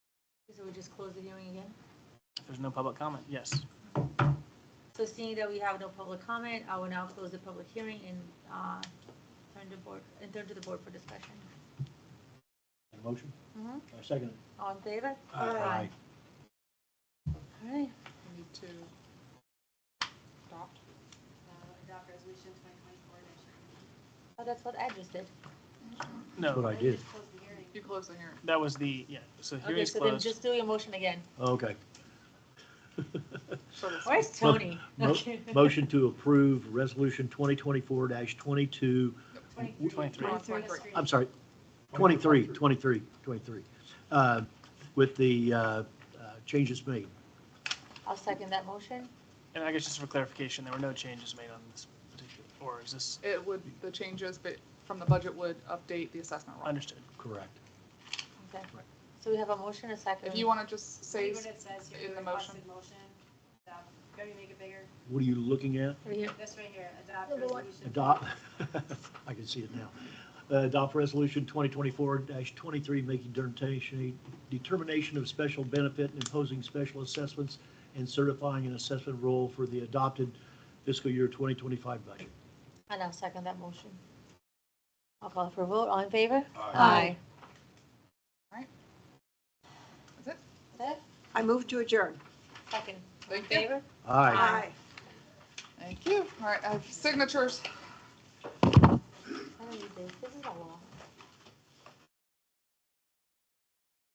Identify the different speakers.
Speaker 1: So we just close the hearing again?
Speaker 2: If there's no public comment, yes.
Speaker 1: So seeing that we have no public comment, I will now close the public hearing and uh, turn to board, and turn to the board for discussion.
Speaker 3: A Motion?
Speaker 1: Mhm.
Speaker 3: I second it.
Speaker 1: All in favor?
Speaker 3: Aye.
Speaker 1: All right,
Speaker 4: We need to adopt.
Speaker 5: uh, adopt resolution twenty twenty-four dash
Speaker 1: oh, that's what I just did.
Speaker 3: That's what
Speaker 2: No,
Speaker 3: I did.
Speaker 5: Just close the hearing.
Speaker 4: You close the hearing.
Speaker 2: that was the, yeah, so
Speaker 1: Okay,
Speaker 2: hearing's
Speaker 1: so then
Speaker 2: closed.
Speaker 1: just do your motion again.
Speaker 3: Okay.
Speaker 4: So it's-
Speaker 1: Where's Tony?
Speaker 3: Mo-
Speaker 1: Okay.
Speaker 3: Motion to approve Resolution 2024-22,
Speaker 2: Twenty-three.
Speaker 5: Twenty-three.
Speaker 4: Twenty-three.
Speaker 3: I'm sorry, 23, 23, 23, uh, with the uh, uh, changes made.
Speaker 1: I'll second that motion.
Speaker 2: And I guess just for clarification, there were no changes made on this particular, or is this
Speaker 4: It would, the changes but from the budget would update the assessment roll.
Speaker 2: understood?
Speaker 3: Correct.
Speaker 1: Okay.
Speaker 3: Right.
Speaker 1: So we have a motion, a second.
Speaker 4: If you want to just say,
Speaker 5: See what it says here,
Speaker 4: in
Speaker 5: the
Speaker 4: the
Speaker 5: requested motion. Adopt- Go to make it bigger.
Speaker 3: What are you looking at?
Speaker 1: Right here.
Speaker 5: This right here, adopt
Speaker 1: Number one.
Speaker 5: resolution.
Speaker 3: Adopt, I can see it now. Uh, Adopt Resolution 2024-23, making determination, determination of special benefit and imposing special assessments and certifying an assessment role for the adopted fiscal year 2025 budget.
Speaker 1: And I'll second that motion. I'll call for a vote. All in favor?
Speaker 4: Aye. is it?
Speaker 1: That's it?
Speaker 6: I move to adjourn.
Speaker 1: Second. All in
Speaker 4: Thank you.
Speaker 1: favor?
Speaker 3: Aye.
Speaker 4: Thank you. All right, I have signatures.
Speaker 1: 哎 I don't need this. This is a law.